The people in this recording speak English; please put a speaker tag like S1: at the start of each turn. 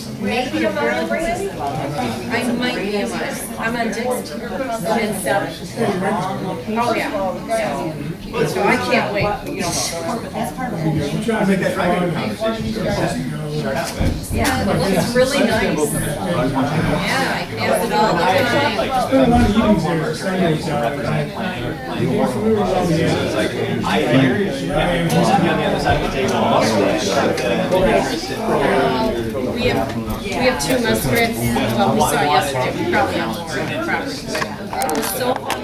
S1: Maybe a mile away? I might be a mile. I'm on Dixon. And seven. Oh, yeah. Yeah. So I can't wait, you know.
S2: I'm trying to make that private conversation.
S1: Yeah, it looks really nice. Yeah, I pass it all the time.
S2: Spent a lot of evenings there, Sundays, uh, you're familiar with all the areas.
S3: I hear you. Yeah, he's on the other side of the table.
S1: We have, we have two muskrats, well, we saw yesterday, we probably have more on the property. It was so